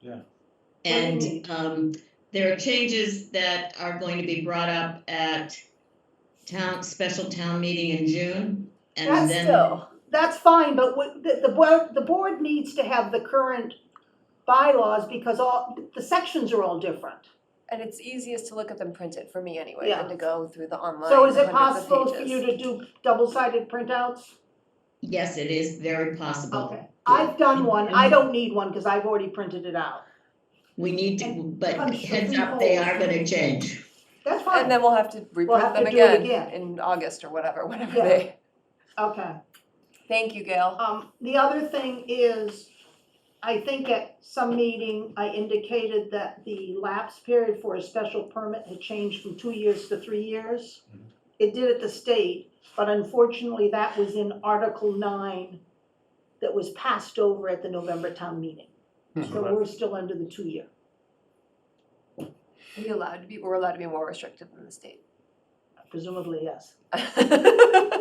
Yeah. And um, there are changes that are going to be brought up at town, special town meeting in June. And That's then, still, that's fine, but what, the, the board, the board needs to have the current bylaws because all, the sections are all different. And it's easiest to look at them printed for me anyway Yeah. than to go through the online. So is it hundreds of possible for pages. you to do double-sided printouts? yes, it is very possible. Okay, I've done one, I don't need one because I've already printed it out. We need to, but I'm sure heads we up, they will. are gonna change. That's And fine, then we'll have to have reprint them to do it again again. in August or whatever, whenever Yeah. they. okay. Thank you, Gail. Um, the other thing is, I think at some meeting, I indicated that the lapse period for a special permit had changed from two years to three years. It did at the state, but unfortunately, that was in Article nine that was passed over at the November town meeting. So we're still under the two-year. Are we allowed to be, we're allowed to be more restrictive than the state. Presumably, yes.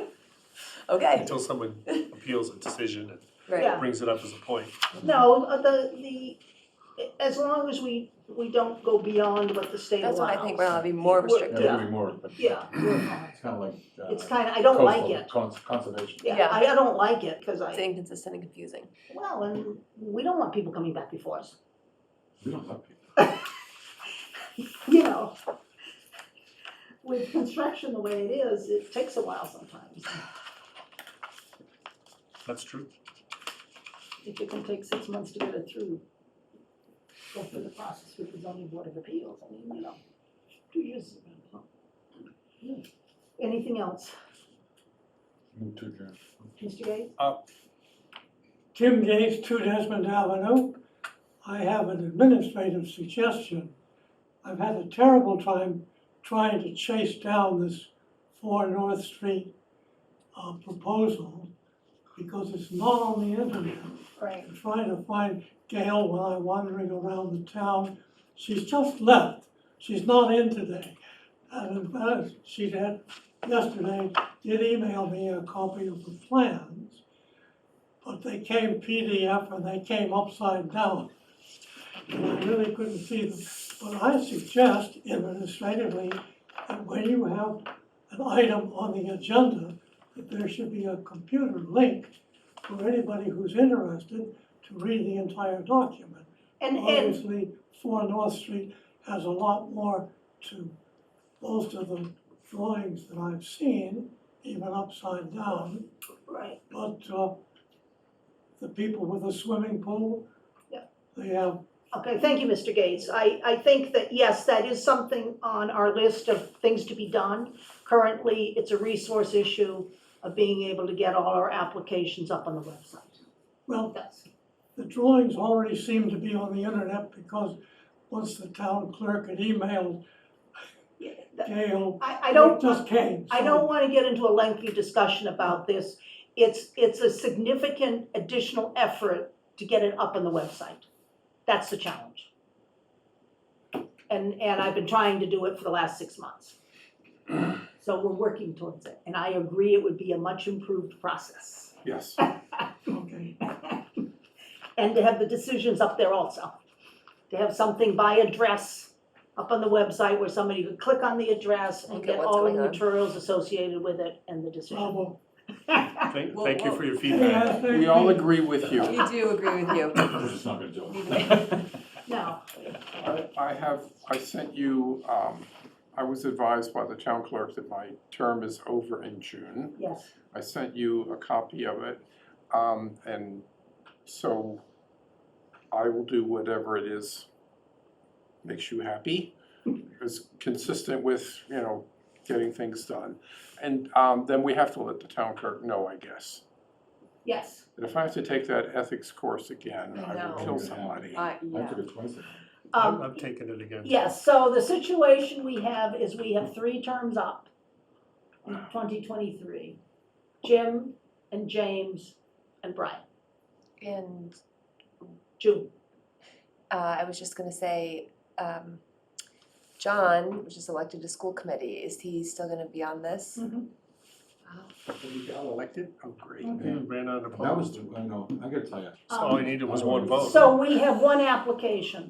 Okay, Until someone appeals a decision and right, Yeah. brings it up as a point. No, uh, the, the, as long as we, we don't go beyond what the state allows. that's what I think, we're allowed to be more We're- restrictive. Yeah. Yeah, maybe more, but. Yeah, we're fine. It's kind of like. uh, It's kind of, I don't like coastal it. cons- Conservation. Yeah, Yeah. I, I don't like it, cause It's I, inconsistent and confusing. well, and we don't want people coming back before us, We don't have people. you know. With construction the way it is, it takes a while sometimes. That's true. If it can take six months to get it through, go through the process with the zoning board of appeals, I mean, you know, two years. is a long time. Hmm. Anything else, Move to adjourn. Mr. Gates? Jim Gates, two Desmond Avenue. I have an administrative suggestion. I've had a terrible time trying to chase down this four North Street uh, proposal because it's not on the internet. Right. I'm trying to find Gail while I'm wandering around the town. She's just left. She's not in today. And in fact, she had, yesterday, did email me a copy of the plans, but they came PDF and they came upside down. And I really couldn't see them. But I suggest administratively that when you have an item on the agenda, that there should be a computer link for anybody who's interested to read the entire document. And, and, Obviously, Four North Street has a lot more to most of the drawings that I've seen, even upside down. right, But uh, the people with the swimming pool, Yeah. they have okay, thank you, Mr. Gates, I, I think that, yes, that is something on our list of things to be done. Currently, it's a resource issue of being able to get all our applications up on the website. Well- That's- The drawings already seem to be on the internet because once the town clerk had emailed yeah, that- Gail, I, I it don't, just came. I so- don't wanna get into a lengthy discussion about this. It's, it's a significant additional effort to get it up on the website. That's the challenge. And, and I've been trying to do it for the last six months. So we're working towards it, and I agree it would be a much improved process. Yes. Okay, And to have the decisions up there also. To have something by address up on the website where somebody could click on the address and Look at get what's all of the going on. materials associated with it and the decision. bravo. Thank, Whoa, thank you for your Any feedback. last thing? We all agree with you. We do agree with you. We're just not gonna do Leave it. it in. No, I I have, I sent you, um, I was advised by the town clerk that my term is over in June. yes. I sent you a copy of it, um, and so I will do whatever it is makes you happy. It's consistent with, you know, getting things done. And, um, then we have to let the town clerk know, I guess. Yes, And if I have to take that ethics course again, I I will know. kill somebody. I- I yeah. took it twice. I'm, um, I'm taking it again. yes, so the situation we have is we have three terms up in twenty twenty-three. Jim and James and Brian, And June, uh, I was just gonna say, um, John, which is elected to school committee, is he still gonna be on this? Mhm. When you got elected, oh, great. Yeah. You ran out of. That Um, polls. was, the- I know, I gotta tell you, All I needed was one vote. So we have one application.